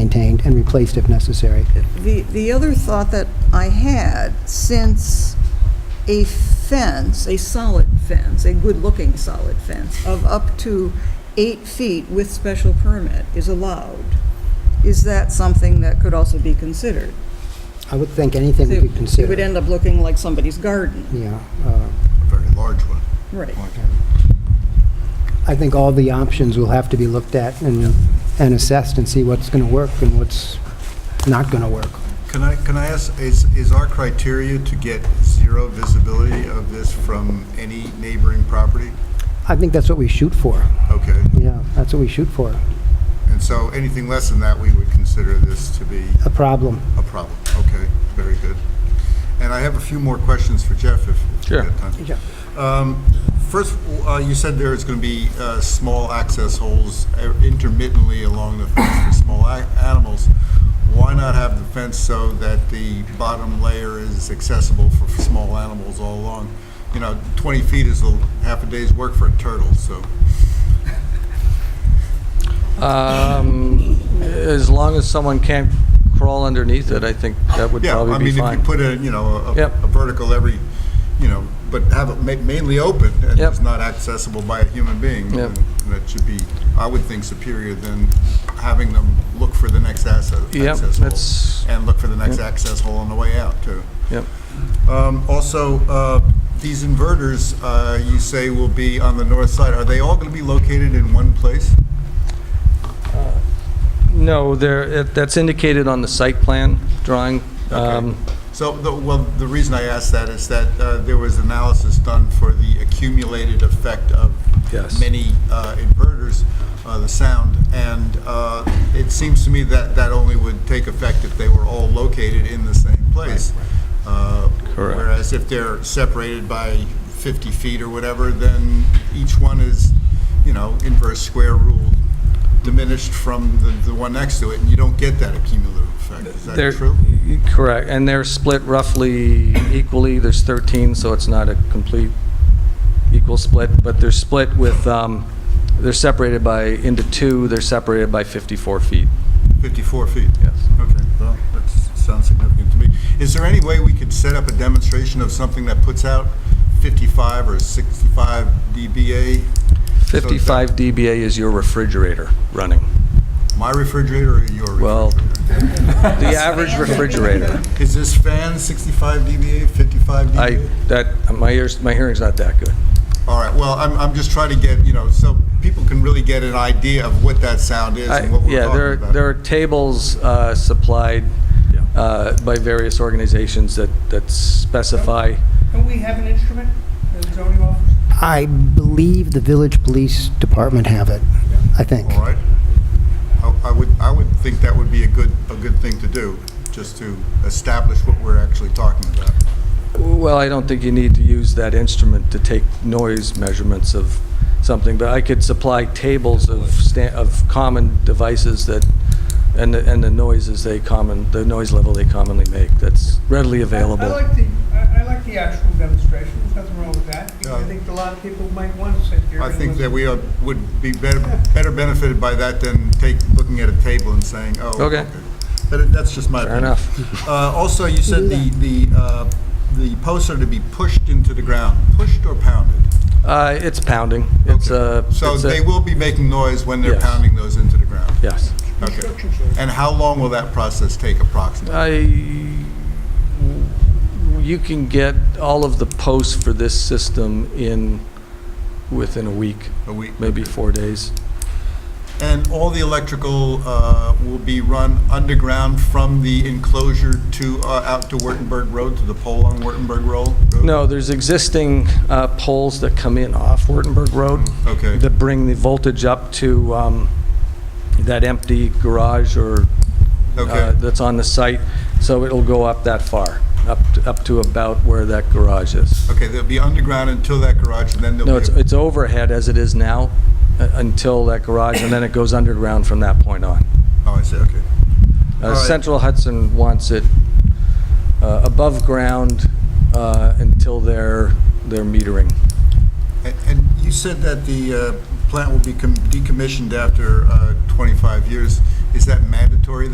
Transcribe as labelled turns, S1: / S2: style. S1: maintained and replaced if necessary.
S2: The, the other thought that I had, since a fence, a solid fence, a good-looking solid fence of up to eight feet with special permit is allowed, is that something that could also be considered?
S1: I would think anything we could
S2: It would
S1: consider,
S2: end up looking like somebody's garden,
S1: yeah. uh,
S3: a very large one.
S2: right?
S1: I think all the options will have to be looked at and, and assessed and see what's going to work and what's not going to work.
S3: Can I, can I ask, is, is our criteria to get zero visibility of this from any neighboring property?
S1: I think that's what we shoot for,
S3: Okay,
S1: yeah, that's what we shoot for,
S3: and so anything less than that, we would consider this to be
S1: a problem.
S3: a problem. Okay, very good. And I have a few more questions for Jeff if if we
S4: Sure.
S3: have time. Um, First, uh, you said there is going to be uh, small access holes uh, intermittently along the fence for small a- animals. Why not have the fence so that the bottom layer is accessible for small animals all along? You know, 20 feet is a half a day's work for a turtle, so,
S4: Um, As long as someone can't crawl underneath it, I think that would
S3: yeah, I
S4: probably be
S3: mean, if you
S4: fine.
S3: put a, you know, a- a
S4: Yep.
S3: a vertical every, you know, but have it ma- mainly open and
S4: Yep.
S3: it's not accessible by a human being,
S4: Yep.
S3: then that should be, I would think, superior than having them look for the next asset-
S4: Yep,
S3: access hole.
S4: that's,
S3: and look for the next
S4: Yep.
S3: access hole on the way out, too.
S4: yep.
S3: Um, Also, uh, these inverters, uh, you say will be on the north side, are they all going to be located in one place?
S4: No, there, it- that's indicated on the site plan drawing. Um,
S3: So, the- well, the reason I asked that is that uh, there was analysis done for the accumulated effect of
S4: Yes.
S3: many uh, inverters, uh, the sound, and uh, it seems to me that that only would take effect if they were all located in the same place. Uh,
S4: Correct.
S3: Whereas if they're separated by 50 feet or whatever, then each one is, you know, inverse square rule diminished from the the one next to it, and you don't get that cumulative effect. Is
S4: they're-
S3: that true?
S4: Correct, and they're split roughly equally, there's 13, so it's not a complete equal split, but they're split with, um, they're separated by, into two, they're separated by 54 feet.
S3: 54 feet?
S4: Yes.
S3: Okay, well, that sounds significant to me. Is there any way we could set up a demonstration of something that puts out 55 or 65 dBA? So that
S4: 55 dBA is your refrigerator running.
S3: My refrigerator or your
S4: Well,
S3: refrigerator?
S4: the average refrigerator.
S3: Is this fan 65 dBA, 55 dBA?
S4: I, that, my ears, my hearing's not that good.
S3: All right, well, I'm, I'm just trying to get, you know, so people can really get an idea of what that sound is
S4: I-
S3: and what we're
S4: Yeah, there,
S3: talking about.
S4: there are tables uh, supplied uh, by various organizations that, that specify,
S5: Don't we have an instrument in the zoning office?
S1: I believe the village police department have it, I think.
S3: All right. I- I would, I would think that would be a good, a good thing to do, just to establish what we're actually talking about.
S4: well, I don't think you need to use that instrument to take noise measurements of something, but I could supply tables of, sta- of common devices that, and, the- and the noises they common, the noise level they commonly make, that's readily
S5: I
S4: available.
S5: like the, I I like the actual demonstration, there's nothing wrong with that, because I
S3: Yeah.
S5: think a lot of people might want to sit here.
S3: I
S5: and
S3: think that
S5: listen.
S3: we are- would be better, better benefited by that than take, looking at a table and saying, oh.
S4: Okay.
S3: But that's just my
S4: Fair
S3: opinion.
S4: enough.
S3: Uh, Also, you said the, the, uh, the posts are to be pushed into the ground, pushed or pounded?
S4: Uh, It's pounding, it's a.
S3: Okay. So
S4: it's a-
S3: they will be making noise when they're
S4: Yes.
S3: pounding those into the ground?
S4: Yes.
S3: Okay. And how long will that process take approximately?
S4: I, you can get all of the posts for this system in, within a week,
S3: A week?
S4: maybe four days.
S3: And all the electrical uh, will be run underground from the enclosure to, uh, out to Wurtemberg Road, to the pole on Wurtemberg Road?
S4: No, there's existing uh, poles that come in off Wurtemberg Road.
S3: Okay.
S4: That bring the voltage up to um, that empty garage or, uh,
S3: Okay.
S4: that's on the site. So it'll go up that far, up, to- up to about where that garage is.
S3: Okay, they'll be underground until that garage, and then they'll be...
S4: No, it's, it's overhead as it is now, uh, until that garage, and then it goes underground from that point on.
S3: Oh, I see, okay.
S4: Uh,
S3: All right.
S4: Central Hudson wants it uh, above ground uh, until their, their metering.
S3: A- And you said that the uh, plant will be com- decommissioned after uh, 25 years. Is that mandatory